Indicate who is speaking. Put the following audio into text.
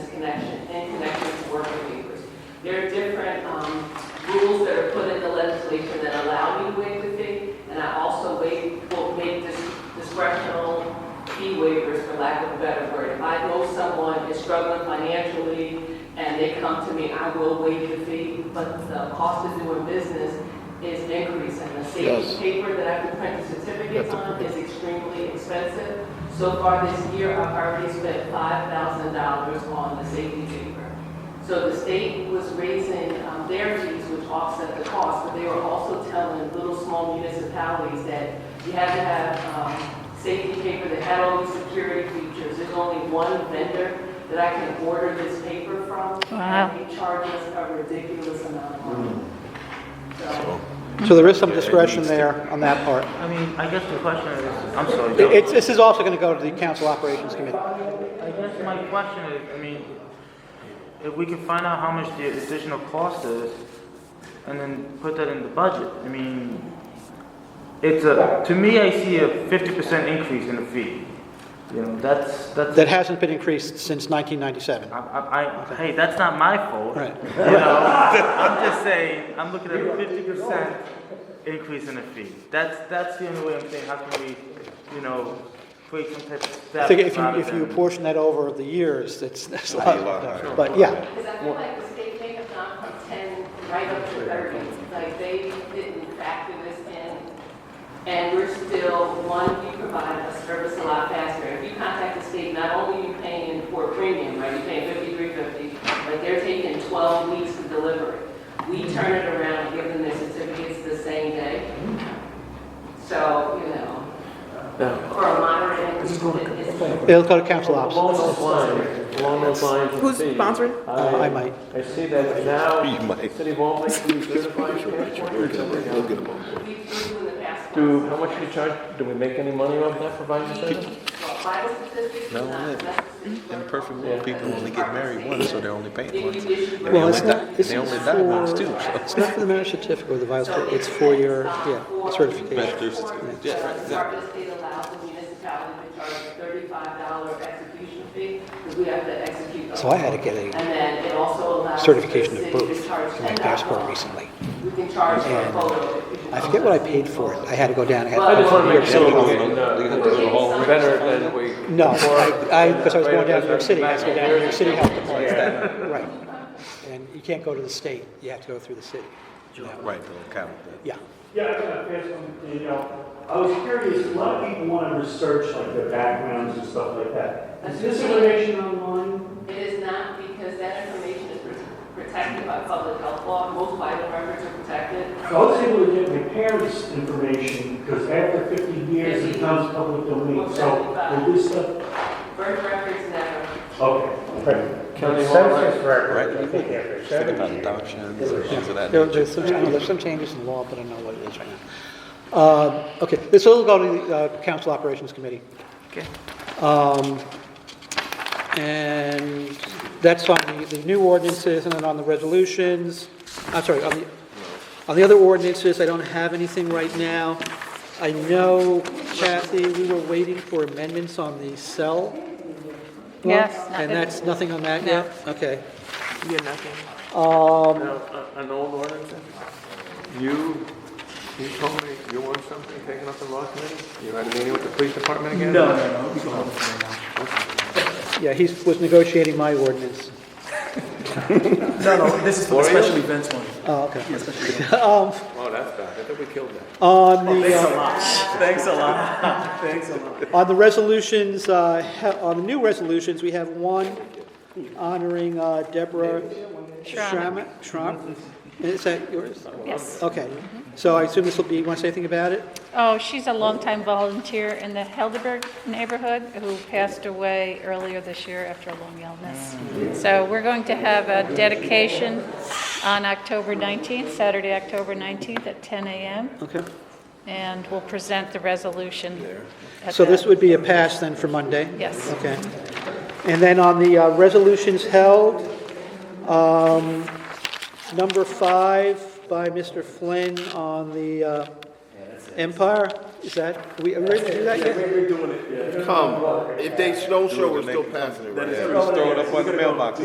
Speaker 1: um, lack of a better word. If I know someone is struggling financially and they come to me, I will waive the fee, but the cost of doing business is increasing. The
Speaker 2: Yes.
Speaker 1: safety paper that I have to print the certificates on is extremely expensive. So far this year, I've already spent five thousand dollars on the safety paper. So the state was raising um, their fees, which offset the cost, but they were also telling little, small municipalities that you had to have um, safety paper that had all these security features. There's only one vendor that I can order this paper from.
Speaker 3: Wow.
Speaker 1: And they charge us a ridiculous amount of money. So,
Speaker 4: So there is some discretion there on that part.
Speaker 5: I mean, I guess the question is, I'm sorry. Joe.
Speaker 4: It's, this is also going to go to the council operations committee.
Speaker 5: I guess my question is, I mean, if we can find out how much the additional cost is, and then put that in the budget, I mean, it's a, to me, I see a fifty percent increase in the fee. You know, that's, that's.
Speaker 4: That hasn't been increased since 1997.
Speaker 5: I, I, I, hey, that's not my fault.
Speaker 4: Right.
Speaker 5: You know, I'm just saying, I'm looking at a fifty percent increase in the fee. That's, that's the only way I'm saying, how can we, you know, create some type of
Speaker 4: I
Speaker 5: step.
Speaker 4: think if you,
Speaker 5: rather
Speaker 4: if you
Speaker 5: than-
Speaker 4: portion that over the years, it's, it's a lot.
Speaker 2: It'll be a lot.
Speaker 4: But yeah,
Speaker 1: because I feel like the state may have gone from 10 right up to 30. Like, they didn't factor this in, and we're still, one, you provide a service a lot faster. If you contact the state, not only are you paying for a premium, right, you're paying 5350, but they're taking 12 weeks to deliver it. We turn it around and give them their certificates the same day. So, you know, for a moderate, it's
Speaker 4: it'll go to council ops.
Speaker 6: Along those lines, along those lines. of
Speaker 7: Who's
Speaker 6: fees,
Speaker 7: sponsoring?
Speaker 4: Uh, I might.
Speaker 6: I see that
Speaker 2: You
Speaker 6: now,
Speaker 2: might.
Speaker 6: City of Albany, we certify SharePoint or something
Speaker 2: We'll
Speaker 6: else.
Speaker 2: get them on board.
Speaker 1: we do in the past.
Speaker 6: Do, how much we charge, do we make any money off that provided service?
Speaker 2: No, Imperfect world, people only get married once, so they're only paying once.
Speaker 1: Well,
Speaker 4: Well, it's
Speaker 2: only
Speaker 4: not,
Speaker 2: die-
Speaker 4: it's
Speaker 2: they
Speaker 4: for,
Speaker 2: only die once too, so.
Speaker 4: it's not for the marriage certificate or the vice, it's for your, yeah, certification.
Speaker 2: Bachelor's certificate. Yeah, right, exactly.
Speaker 1: Department of State allows the municipality to charge a thirty-five dollar execution fee, because we have to execute those.
Speaker 4: So I had to get a
Speaker 1: And then it also allows. the
Speaker 4: certification of
Speaker 1: city to
Speaker 4: both
Speaker 1: charge
Speaker 4: for my
Speaker 1: $10.
Speaker 4: passport recently.
Speaker 1: We can charge for a
Speaker 4: And
Speaker 1: photo.
Speaker 4: I forget what I paid for it. I had to go down, I had
Speaker 1: I
Speaker 4: to
Speaker 1: just
Speaker 4: go to
Speaker 1: wanna
Speaker 4: New York
Speaker 6: make sure
Speaker 4: City.
Speaker 6: we get, uh, better than we.
Speaker 4: No, I, I, because I was going down to New York City, I had to go down to New York City Health Department. Right. And you can't go to the state, you have to go through the city.
Speaker 2: Right, they'll count that.
Speaker 4: Yeah.
Speaker 8: Yeah, I got a question, Danielle. I was curious, a lot of people want to research like their backgrounds and stuff like that. Is this information online?
Speaker 1: It is not because that information is pr- protected by public health law, most vital records are protected.
Speaker 8: I was able to get my parents' information because after 50 years, it becomes public domain. So will this stuff,
Speaker 1: Birth records never.
Speaker 8: okay.
Speaker 6: County Hall.
Speaker 2: Right? Think about adoptions or things of that.
Speaker 4: There-
Speaker 2: nature.
Speaker 4: There's some, I know there's some changes in law, but I don't know what it is right now. Uh, Okay, this will go to the uh, Council Operations Committee.
Speaker 5: Okay.
Speaker 4: Um, And that's on the, the new ordinances and then on the resolutions. I'm sorry, on the, on the other ordinances, I don't have anything right now. I know Kathy, we were waiting for amendments on the cell. one,
Speaker 3: Yes.
Speaker 4: And that's, nothing on that yet? Okay.
Speaker 7: You're nothing.
Speaker 4: Um,
Speaker 6: Now, uh, An old ordinance? You, you told me you want something taken up in law committee? You had a meeting with the police department again? No,
Speaker 4: Yeah, he was negotiating my ordinance.
Speaker 9: No, no, this is for the special events one.
Speaker 4: Oh, okay. Um,
Speaker 6: Oh, that's bad. I thought we killed that.
Speaker 4: On
Speaker 9: Oh,
Speaker 4: the, uh,
Speaker 9: Thanks a lot. Thanks a lot.
Speaker 4: on the resolutions, uh, he- on the new resolutions, we have one honoring uh, Deborah Schramm. Schramm. Is that yours?
Speaker 3: Yes.
Speaker 4: Okay. So I assume this will be, you want to say anything about it?
Speaker 3: Oh, she's a longtime volunteer in the Helderberg neighborhood who passed away earlier this year after a long illness. So we're going to have a dedication on October 19th, Saturday, October 19th at 10 a.m.
Speaker 4: Okay.
Speaker 3: And we'll present the resolution. at
Speaker 4: So this
Speaker 3: that.
Speaker 4: would be a pass then for Monday?
Speaker 3: Yes.
Speaker 4: Okay. And then on the uh, resolutions held, um, number five by Mr. Flynn on the uh, Empire, is that, are we are we ready to do that yet?
Speaker 10: Come, if they don't show, we're still passing it right
Speaker 2: Just throw it up on the mailbox.